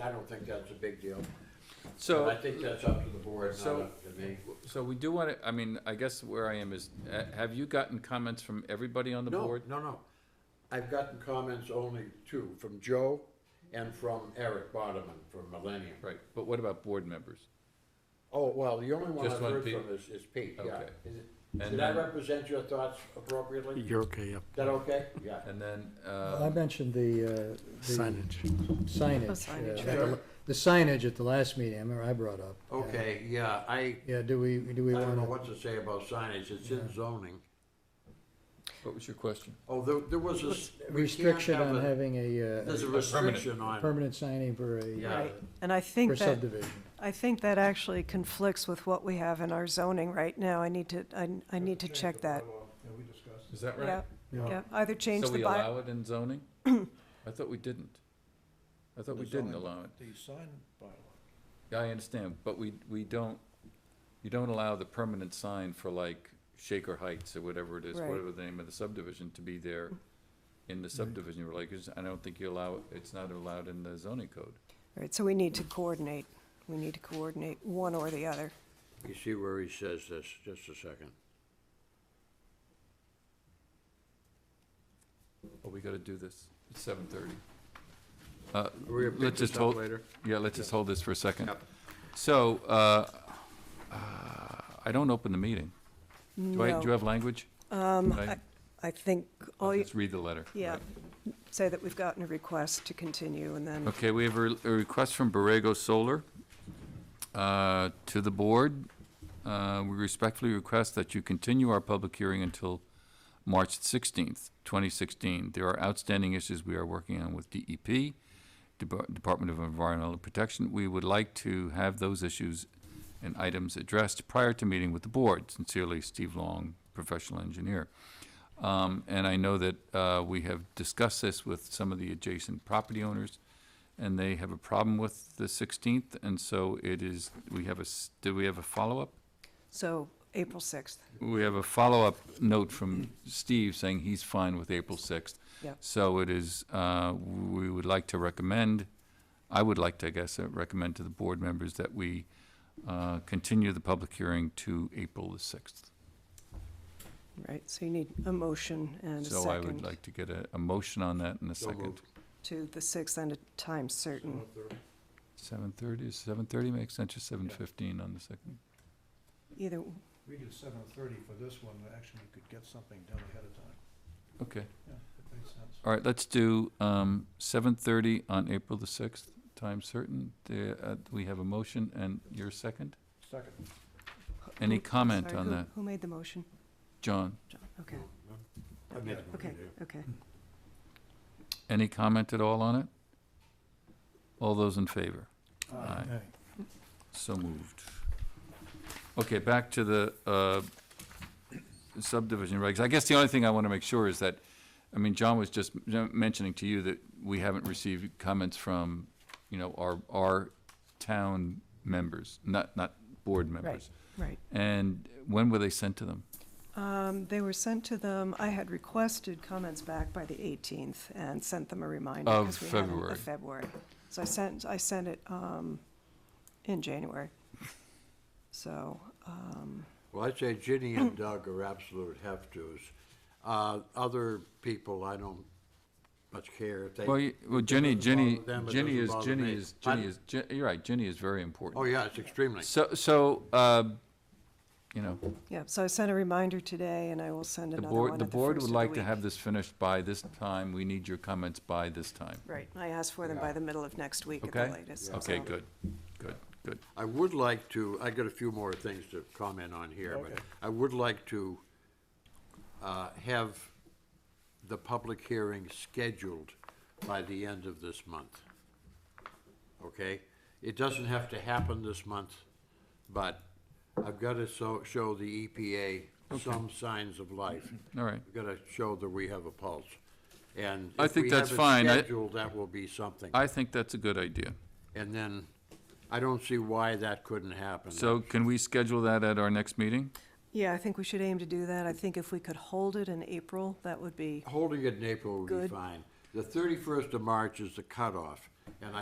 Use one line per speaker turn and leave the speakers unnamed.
I don't think that's a big deal. I
So,
think that's up to the board, not
So-
up to me.
so we do want to, I mean, I guess where I am is, uh, have you gotten comments from everybody on the
No,
board?
no, no. I've gotten comments only two, from Joe and from Eric Bodeman from Millennium.
Right, but what about board members?
Oh, well, the only one
Just
I've
one
heard
Pete?
from is, is Pete, yeah.
Okay.
Is it-
And
Did I
then-
represent your thoughts appropriately? Is
You're okay, yep.
that okay? Yeah.
And then,
I
uh,
mentioned the, uh, the
Signage.
signage.
Oh, signage,
uh,
right.
The signage at the last meeting, I remember I brought up.
Okay, yeah, I,
Yeah, do we, do
I
we
don't know
want
what to say about signage. It's in zoning.
what was your question?
Oh, there, there was a. s-
a
we can't
restriction
have
on
a-
having a, uh,
There's a
a permanent-
restriction
a
on,
permanent signing for
Yeah.
a,
Right,
uh,
and I
for
think that,
subdivision?
I think that actually conflicts with what we have in our zoning right now. I need to, I, I need to check that.
Is that
Yeah,
right?
No.
yeah, either change
So
the
we
by,
allow it in zoning? I thought we didn't. I thought we
The
didn't
zoning.
allow it.
The sign bylaw.
Yeah, I understand, but we, we don't, you don't allow the permanent sign for like Shaker Heights or whatever it is,
Right.
whatever the name of the subdivision, to be there in the subdivision regulations. I don't think you allow, it's not allowed in the zoning code.
right, so we need to coordinate. We need to coordinate one or the other.
you see where he says this, just a second.
But we gotta do this, it's seven thirty. Uh,
Are we gonna pick
let's
this
just
up
hold,
later?
yeah, let's just hold this for a second.
Yep.
So, uh, uh, I don't open the meeting. Do I, do you
No,
have language? Um,
I oh, think, all you
Let's read the letter.
yeah,
Right.
say that we've gotten a request to continue and then,
Okay, we have a a request from Borrego Solar uh, to the board. Uh, We respectfully request that you continue our public hearing until March 16th, 2016. There are outstanding issues we are working on with DEP, Dep- Department of Environmental Protection. We would like to have those issues and items addressed prior to meeting with the board. Sincerely, Steve Long, professional engineer. Um, And I know that uh, we have discussed this with some of the adjacent property owners, and they have a problem with the 16th, and so it is, we have a, s- do we have a follow-up?
so April 6th.
We have a follow-up note from Steve saying he's fine with April 6th.
Yep.
So it is, uh, we would like to recommend, I would like to, I guess, uh, recommend to the board members that we uh, continue the public hearing to April the 6th.
Right, so you need a motion and a
So I would
second
like to get a, a motion on that in a
So
second.
moved.
to the 6th and a time certain.
Seven thirty, is seven thirty make sense, or seven fifteen on the second?
Either,
We did seven thirty for this one, actually, we could get something done ahead of time.
Okay,
Yeah, that makes sense.
all right, let's do, um, seven thirty on April the sixth, time certain. The, uh, we have a motion and your second?
Second.
Any
Who-
comment
sorry,
on
who-
that?
Who made the motion?
John,
Okay,
I made a
okay,
motion.
okay.
any comment at all on it? All those in favor? Aye. So moved. Okay, back to the uh, subdivision regs. I guess the only thing I want to make sure is that, I mean, John was just m- mentioning to you that we haven't received comments from, you know, our, our town members, not, not board members.
Right.
And when were they sent to them?
Um, They were sent to them, I had requested comments back by the 18th and sent them a reminder.
Of
'cause we hadn't-
February.
Of February. So I sent, I sent it um, in January. So, um,
Well, I'd say Ginny and Doug are absolute have-tos. Uh, other people, I don't much care if they.
Well, you- well, Jenny,
doesn't bother
Jenny,
them, it
Jenny
doesn't
is,
bother
Jenny
me.
is, Jenny
Pardon?
is, Je- you're right, Jenny is very important.
Oh, yeah, it's extremely.
So, so, uh, you know,
yeah, so I sent a reminder today and I will send
The
another one
board, the
at the
board
first
would
of the
like to
week.
have this finished by this time. We need your comments by this time.
Right, I asked for them by the middle of next week at
Okay?
the latest.
Okay,
so-
good, good, good.
I would like to, I got a few more things to comment on here, but
Okay.
I would like to uh, have the public hearing scheduled by the end of this month. Okay? It doesn't have to happen this month, but I've got to so, show the EPA some signs of life.
All right.
We've got to show that we have a pulse. And
I
if
think
we
that's
have it
fine. I-
scheduled, that will be something.
I think that's a good idea.
And then, I don't see why that couldn't happen.
So can we schedule that at our next meeting?
Yeah, I think we should aim to do that. I think if we could hold it in April, that would be
Holding it in April would be
Good.
fine. The thirty-first of March is the cutoff, and I.